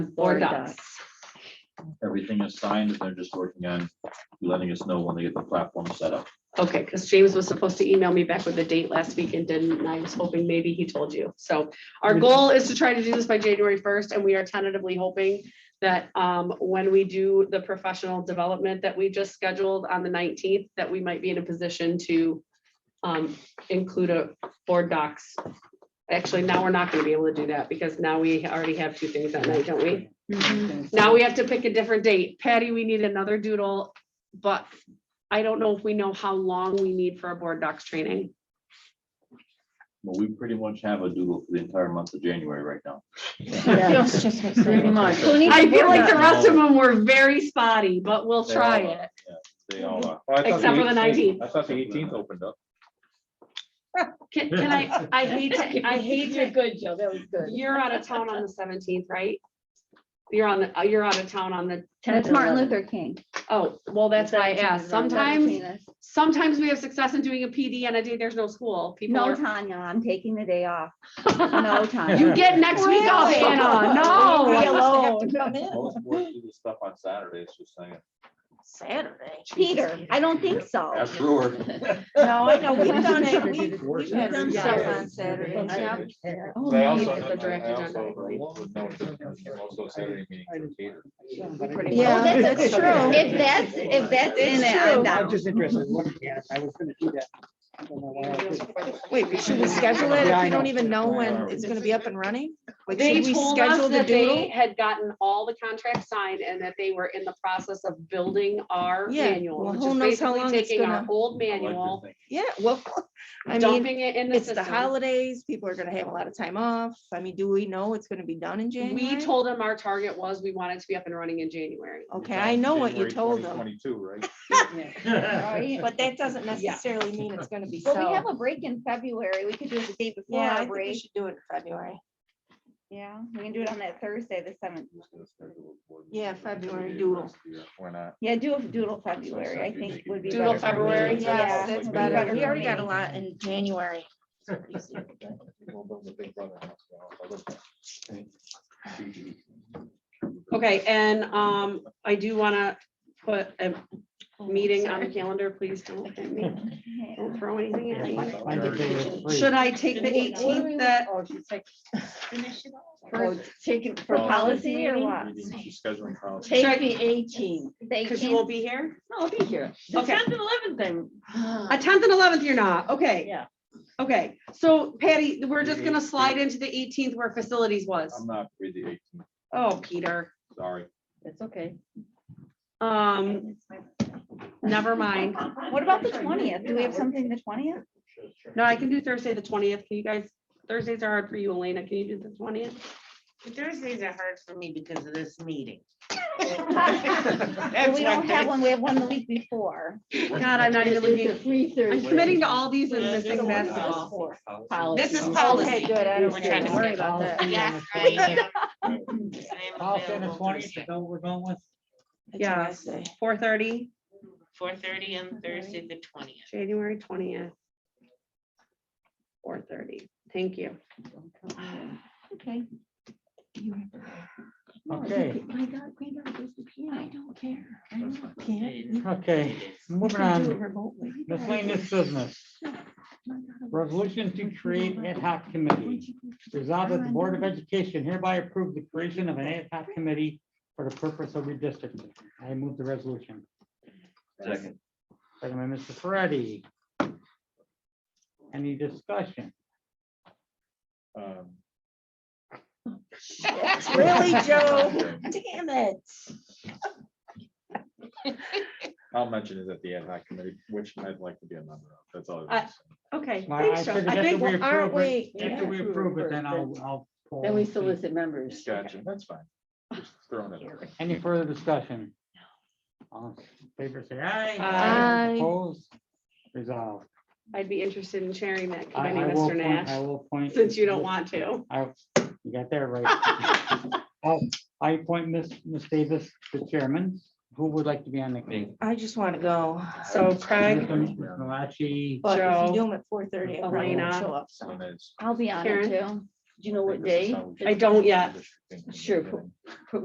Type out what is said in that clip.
or docs. Everything is signed, and they're just working on letting us know when they get the platform set up. Okay, because James was supposed to email me back with a date last week and didn't, and I was hoping maybe he told you. So our goal is to try to do this by January first, and we are tentatively hoping that um, when we do the professional development that we just scheduled on the nineteenth, that we might be in a position to um, include a board docs. Actually, now we're not gonna be able to do that because now we already have two things that night, don't we? Mm-hmm. Now we have to pick a different date. Patty, we need another doodle, but I don't know if we know how long we need for a board docs training. Well, we pretty much have a doodle for the entire month of January right now. Pretty much. Who needs I a board feel like the doc? rest of them were very spotty, but we'll They try all it. They all Oh, are. Except for the 19th. I thought the eighteenth opened up. Can, can I, I hate to, I hate You're to, good, Joe, that was good. you're out of town on the seventeenth, right? You're on, the. uh, you're out of town on the, That's Martin Luther King. oh, well, that's why I asked. Sometimes, Seventeenth. sometimes we have success in doing a PD on a day there's no school. People No, are. Tanya, I'm taking the day off. No, Tanya. You get next week off, Really? Anna. Leave me No. alone. Most boards do this stuff on Saturdays, just saying. Saturday. Peter, I don't think so. That's Brewer. No, I know, we've Because done it's it. never We've- did We've had Done stuff stuff. on Saturday. Done night. stuff. Oh, But I man. also, it's the draft I agenda, I also believe. would note that I'm also Saturday meeting for cater. Oh, Yeah, that's that's true. true. If that's, if that's in it, I'm I'm down. just interested in looking at it. I was gonna do that. I don't know why I didn't. Wait, should we schedule it if Yeah, I we don't know. even know Yeah. when it's gonna be up and running? Like, They should we told us schedule the that they doodle? had gotten all the contracts signed and that they were in the process of building our Yeah, manual, well, which who is knows how basically long it's taking our gonna- old I like manual, this thing. Yeah, well, I mean, dumping it in the it's the system. holidays, people are gonna have a lot of time off. I mean, do we know it's gonna be done in January? We told them our target was we wanted to be up and running in January. Okay, I know what you told them, Twenty-two, right? but that doesn't Yeah. necessarily mean it's gonna be so. Well, we have a break in February. We could do it the day before Yeah, I our think we break. should do it in February. Yeah, we can do it on that Thursday, the seventh. Yeah, February doodle. Why not? Yeah, do a doodle February, I think would be. Doodle better for me. February, Yeah, yes, that's We better already- for we already me. got lot in January. We'll build the big brother house, you know, if I look at it. Okay, and um, I do want to put a meeting on the calendar, please don't look at me, don't throw anything at me. I did think it was free. Should I take the eighteenth that, Oh, Take it for Oh. policy or what? Meetings, Scheduling policy. Should I- Take the eighteen. They because you can't- won't be here? I'll be here. Okay. and eleven thing. A tenth and eleventh, you're not, okay. Yeah. Okay, so Patty, we're just gonna slide into the eighteenth where facilities was. I'm not free the eighteenth, Oh, Peter, sorry. It's okay. um, never mind. What about the twentieth? Do we have something the twentieth? No, I can do Thursday, the twentieth. Can you guys, Thursdays are hard for you, Elena. Can you do the twentieth? Thursdays are hard for me because of this meeting. Well, we don't have one. We have one the week before. God, I'm not even looking. Free I'm committing to all these and missing basketball. basketball. This is Okay, policy. good. I don't We're care. trying Don't to worry skip about that. Yes, I am. I Policy on the 20th, is that what we're going with? Yeah. Four thirty, Four thirty on Thursday, the twentieth. January twentieth. Four thirty. Thank you. Okay. Okay, My God, granddaughter goes to piano. I don't care. I know. okay, moving on, miscellaneous business. Resolution to create ad hoc committee. Resolved that the Board of Education hereby approve the creation of an ad hoc committee for the purpose of redistricting. I move the resolution. Second. Second by Mr. Ferretti. Any discussion? Um, Really, Joe? Damn it. I'll mention it at the ad hoc committee, which I'd like to be a member of, that's Uh, all. I- Okay. Well, I thanks, Joe. figured I after think- we Well, aren't approve it- we- After we approve it, then I'll, I'll. poll Then we and see. solicit members. Gotcha, that's fine. Just Throwing it. out there. Any further discussion? All in favor say aye. Um, Aye. Opposed, resolved. I'd be interested in chairing that I- committee, I will Mr. appoint- I Nash, will point. since you don't want to. I, you got that right. I'll- I appoint Miss Miss Davis, the chairman. Who would like to be on the committee? I just want to go. So Craig, Mr. Malachi, But if Joe, you do them at four thirty, I probably won't Elena. show up. So so. that's- I'll be on it too. Do you know what This is day? how we I don't yet. should think of it. Sure.